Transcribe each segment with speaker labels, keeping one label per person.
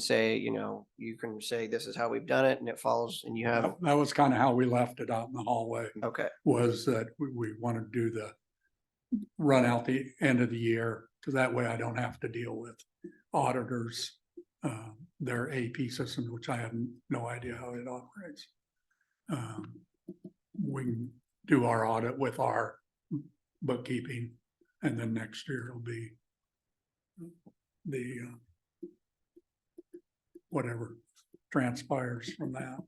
Speaker 1: say, you know, you can say this is how we've done it and it follows and you have,
Speaker 2: That that was kind of how we left it out in the hallway,
Speaker 1: okay,
Speaker 2: was that we, we want to do the run out the end of the year, because that way I don't have to deal with auditors, uh, their AP systems, which I have no idea how it operates. Um, We can do our audit with our bookkeeping, and then next year it'll be the uh, whatever transpires from that.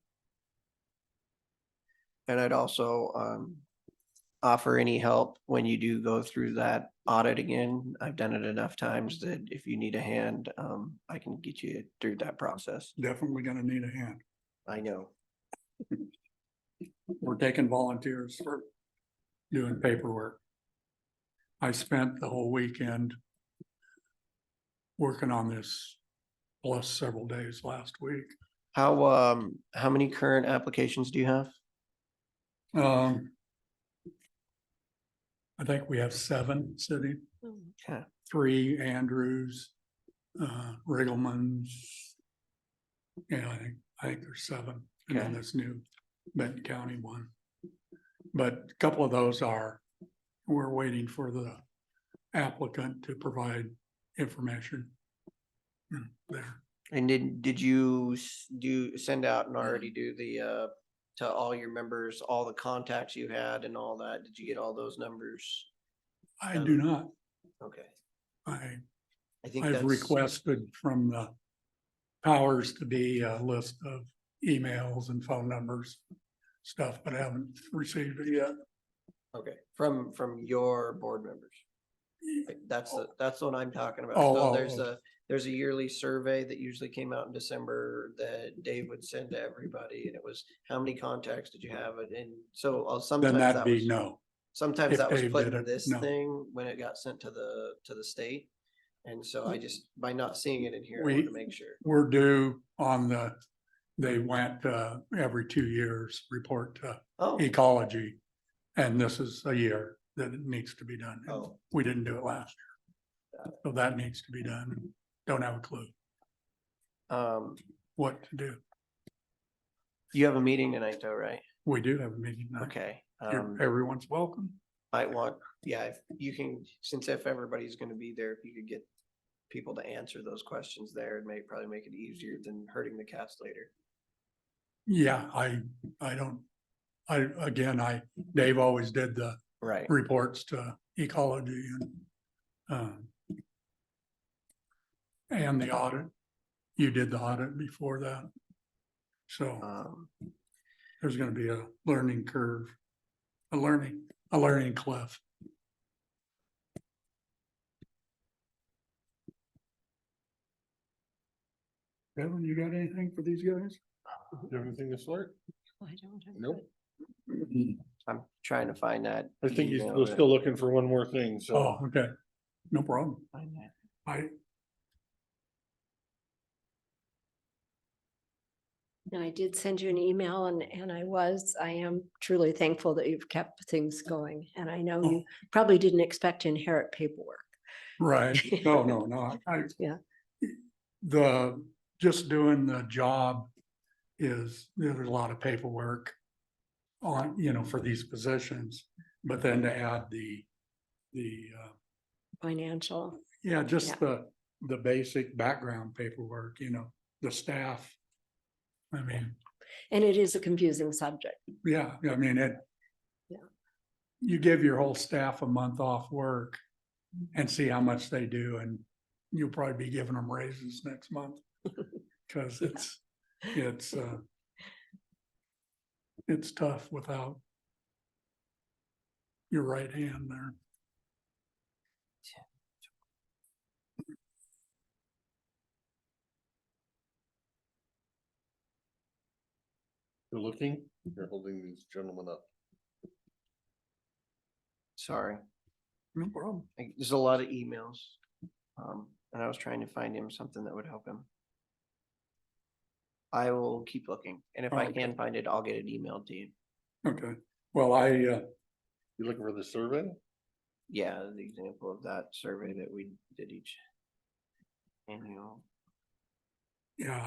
Speaker 1: and I'd also, um, offer any help when you do go through that audit again. I've done it enough times that if you need a hand, um, I can get you through that process.
Speaker 2: definitely gonna need a hand.
Speaker 1: I know.
Speaker 2: We're taking volunteers for doing paperwork. I spent the whole weekend working on this, plus several days last week.
Speaker 1: How, um, how many current applications do you have?
Speaker 2: Um, I think we have seven sitting,
Speaker 1: Yeah,
Speaker 2: three Andrews, uh, Riggleman's. Yeah, I think, I think there's seven, and then
Speaker 1: Okay.
Speaker 2: this new Benton County one. But a couple of those are, we're waiting for the applicant to provide information. Mm, There,
Speaker 1: and did, did you s- do, send out and already do the, uh, to all your members, all the contacts you had and all that? Did you get all those numbers?
Speaker 2: I do
Speaker 1: Um,
Speaker 2: not,
Speaker 1: Okay,
Speaker 2: I
Speaker 1: I think
Speaker 2: I've
Speaker 1: that's-
Speaker 2: requested from the powers to be a list of emails and phone numbers, stuff, but I haven't received it yet.
Speaker 1: Okay, from, from your board members. Like, That's, the that's the one I'm talking about.
Speaker 2: Oh,
Speaker 1: So
Speaker 2: oh,
Speaker 1: there's
Speaker 2: oh.
Speaker 1: a, there's a yearly survey that usually came out in December that Dave would send to everybody and it was, how many contacts did you have? And- And so uh, sometimes
Speaker 2: Then
Speaker 1: that
Speaker 2: that'd be
Speaker 1: was,
Speaker 2: no.
Speaker 1: sometimes
Speaker 2: if
Speaker 1: that was
Speaker 2: Dave
Speaker 1: put
Speaker 2: did
Speaker 1: in
Speaker 2: it,
Speaker 1: this
Speaker 2: no.
Speaker 1: thing when it got sent to the, to the state. And so I just, by not seeing it in here, I
Speaker 2: We-
Speaker 1: wanted to make sure.
Speaker 2: We're due on the, they went uh every two years, report to
Speaker 1: Oh,
Speaker 2: ecology. And this is a year that it needs to be done.
Speaker 1: oh,
Speaker 2: We didn't do it last year. So that needs to be done. Don't have a clue
Speaker 1: um,
Speaker 2: what to do.
Speaker 1: you have a meeting tonight though, right?
Speaker 2: We do have a meeting. night.
Speaker 1: Okay.
Speaker 2: You're-
Speaker 1: um,
Speaker 2: Everyone's welcome.
Speaker 1: Might want, yeah, if you can, since if everybody's gonna be there, if you could get people to answer those questions there, it may probably make it easier than hurting the cast later.
Speaker 2: Yeah, I, I don't, I, again, I, Dave always did the
Speaker 1: Right.
Speaker 2: reports to ecology and, um, and the audit. You did the audit before that. So
Speaker 1: Um,
Speaker 2: there's gonna be a learning curve, a learning, a learning cliff. Kevin, you got anything for these guys?
Speaker 3: Everything this work?
Speaker 4: I don't have.
Speaker 3: Nope.
Speaker 4: it.
Speaker 1: I'm trying to find that.
Speaker 3: I think he's,
Speaker 1: email
Speaker 3: we're
Speaker 1: that-
Speaker 3: still looking for one more thing, so.
Speaker 2: Oh, okay. No problem.
Speaker 1: find that.
Speaker 2: I,
Speaker 4: No, I did send you an email and, and I was, I am truly thankful that you've kept things going. And I know you probably didn't expect to inherit paperwork.
Speaker 2: Right, no, no, no, I.
Speaker 4: Yeah.
Speaker 2: The, just doing the job is, there's a lot of paperwork on, you know, for these positions, but then to add the, the, uh,
Speaker 4: Financial,
Speaker 2: yeah,
Speaker 4: Yeah.
Speaker 2: just the, the basic background paperwork, you know, the staff. I mean,
Speaker 4: and it is a confusing subject.
Speaker 2: yeah, I mean, it.
Speaker 4: Yeah.
Speaker 2: You give your whole staff a month off work and see how much they do and you'll probably be giving them raises next month. Cause it's, it's, uh. It's tough without. Your right hand there.
Speaker 3: You're looking, you're holding these gentlemen up.
Speaker 1: Sorry,
Speaker 2: No problem.
Speaker 1: I- there's a lot of emails. Um, and I was trying to find him something that would help him. I will keep looking, and if I
Speaker 2: Okay.
Speaker 1: can find it, I'll get it emailed to you.
Speaker 2: Okay, well, I, uh,
Speaker 3: You're looking for the survey?
Speaker 1: Yeah, the example of that survey that we did each annual.
Speaker 2: you know,